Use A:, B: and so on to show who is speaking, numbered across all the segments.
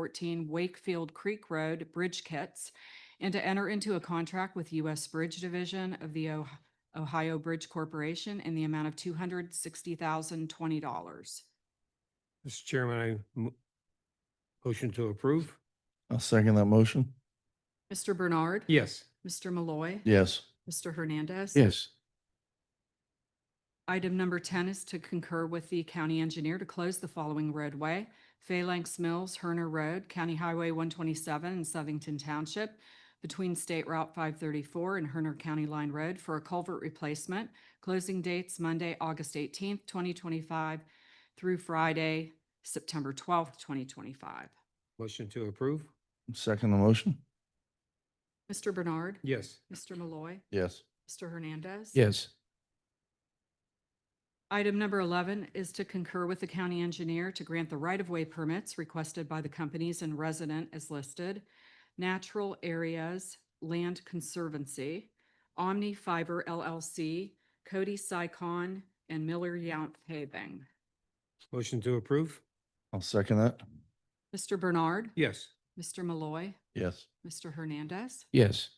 A: fourteen Wakefield Creek Road Bridge Kits and to enter into a contract with U.S. Bridge Division of the Oh- Ohio Bridge Corporation in the amount of two hundred sixty thousand twenty dollars.
B: Mr. Chairman, I mo- motion to approve?
C: I'll second that motion.
A: Mr. Bernard.
B: Yes.
A: Mr. Malloy.
C: Yes.
A: Mr. Hernandez.
C: Yes.
A: Item number ten is to concur with the county engineer to close the following roadway. Phalanx Mills, Herner Road, County Highway one twenty-seven in Southington Township between State Route five thirty-four and Herner County Line Road for a culvert replacement. Closing dates Monday, August eighteenth, twenty twenty-five through Friday, September twelfth, twenty twenty-five.
B: Motion to approve?
C: Second the motion.
A: Mr. Bernard.
B: Yes.
A: Mr. Malloy.
C: Yes.
A: Mr. Hernandez.
B: Yes.
A: Item number 11 is to concur with the county engineer to grant the right-of-way permits requested by the companies and resident as listed, Natural Areas Land Conservancy, Omni Fiber LLC, Cody Sycon, and Miller Yount Paving.
B: Motion to approve?
C: I'll second that.
A: Mr. Bernard,
B: Yes.
A: Mr. Malloy,
C: Yes.
A: Mr. Hernandez.
B: Yes.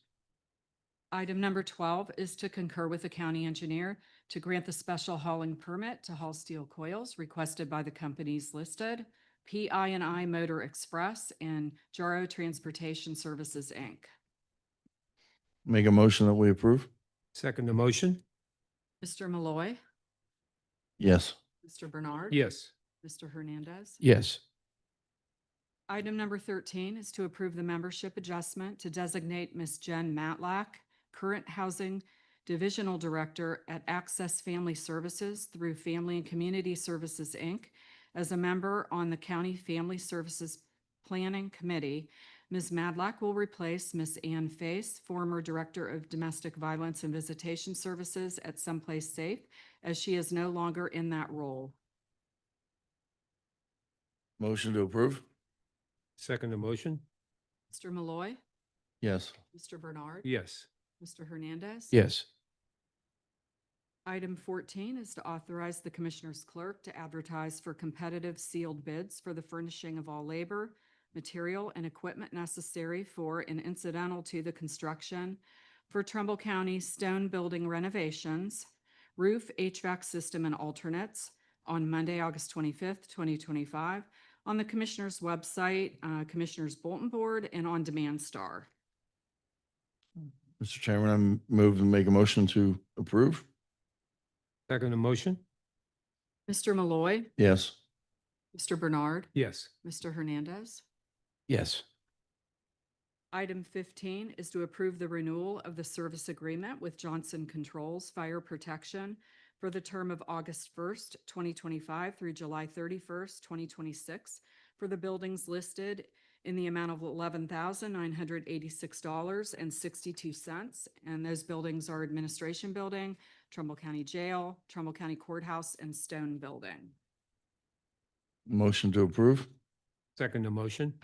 A: Item number twelve is to concur with the county engineer to grant the special hauling permit to haul steel coils requested by the companies listed, PI and I Motor Express and Jaro Transportation Services, Inc.
C: Make a motion that we approve?
B: Second the motion?
A: Mr. Malloy,
C: Yes.
A: Mr. Bernard.
B: Yes.
A: Mr. Hernandez.
B: Yes.
A: Item number thirteen is to approve the membership adjustment to designate Ms. Jen Matlack, current Housing Divisional Director at Access Family Services through Family and Community Services, Inc., as a member on the County Family Services Planning Committee. Ms. Matlack will replace Ms. Ann Face, former Director of Domestic Violence and Visitation Services at Someplace Safe, as she is no longer in that role.
C: Motion to approve?
B: Second the motion?
A: Mr. Malloy,
C: Yes.
A: Mr. Bernard.
B: Yes.
A: Mr. Hernandez.
B: Yes.
A: Item fourteen is to authorize the Commissioner's clerk to advertise for competitive sealed bids for the furnishing of all labor, material, and equipment necessary for and incidental to the construction for Trumbull County stone building renovations, roof HVAC system and alternates on Monday, August twenty-fifth, twenty twenty-five, on the Commissioner's website, uh, Commissioner's Bulletin Board, and on Demand Star.
C: Mr. Chairman, I'm moved and make a motion to approve?
B: Second the motion?
A: Mr. Malloy,
C: Yes.
A: Mr. Bernard,
B: Yes.
A: Mr. Hernandez.
B: Yes.
A: Item fifteen is to approve the renewal of the service agreement with Johnson Controls Fire Protection for the term of August first, twenty twenty-five through July thirty-first, twenty twenty-six for the buildings listed in the amount of eleven thousand nine hundred eighty-six dollars and sixty-two cents. And those buildings are Administration Building, Trumbull County Jail, Trumbull County Courthouse, and Stone Building.
C: Motion to approve?
B: Second the motion?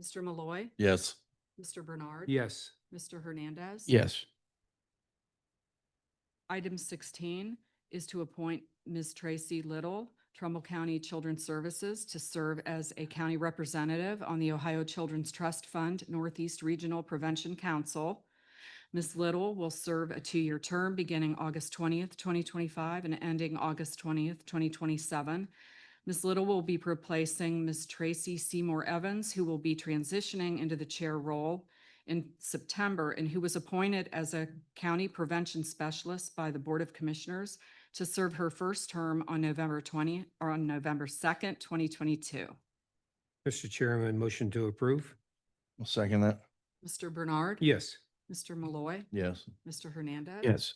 A: Mr. Malloy,
C: Yes.
A: Mr. Bernard.
B: Yes.
A: Mr. Hernandez.
B: Yes.
A: Item sixteen is to appoint Ms. Tracy Little, Trumbull County Children's Services, to serve as a county representative on the Ohio Children's Trust Fund Northeast Regional Prevention Council. Ms. Little will serve a two-year term beginning August twentieth, twenty twenty-five and ending August twentieth, twenty twenty-seven. Ms. Little will be replacing Ms. Tracy Seymour Evans, who will be transitioning into the chair role in September and who was appointed as a county prevention specialist by the Board of Commissioners to serve her first term on November 20, or on November 2nd, 2022.
B: Mr. Chairman, motion to approve?
C: I'll second that.
A: Mr. Bernard.
B: Yes.
A: Mr. Malloy.
C: Yes.
A: Mr. Hernandez.
B: Yes.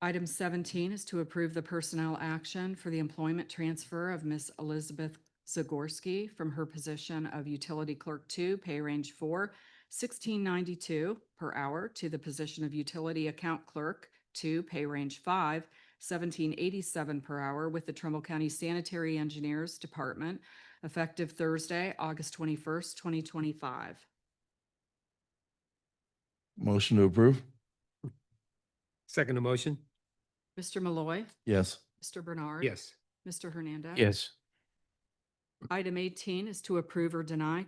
A: Item seventeen is to approve the personnel action for the employment transfer of Ms. Elizabeth Zagorski from her position of Utility Clerk Two, pay range four, sixteen ninety-two per hour to the position of Utility Account Clerk Two, pay range five, seventeen eighty-seven per hour with the Trumbull County Sanitary Engineers Department effective Thursday, August twenty-first, twenty twenty-five.
C: Motion to approve?
B: Second the motion?
A: Mr. Malloy,
C: Yes.
A: Mr. Bernard.
B: Yes.
A: Mr. Hernandez.
B: Yes.
A: Item eighteen is to approve or deny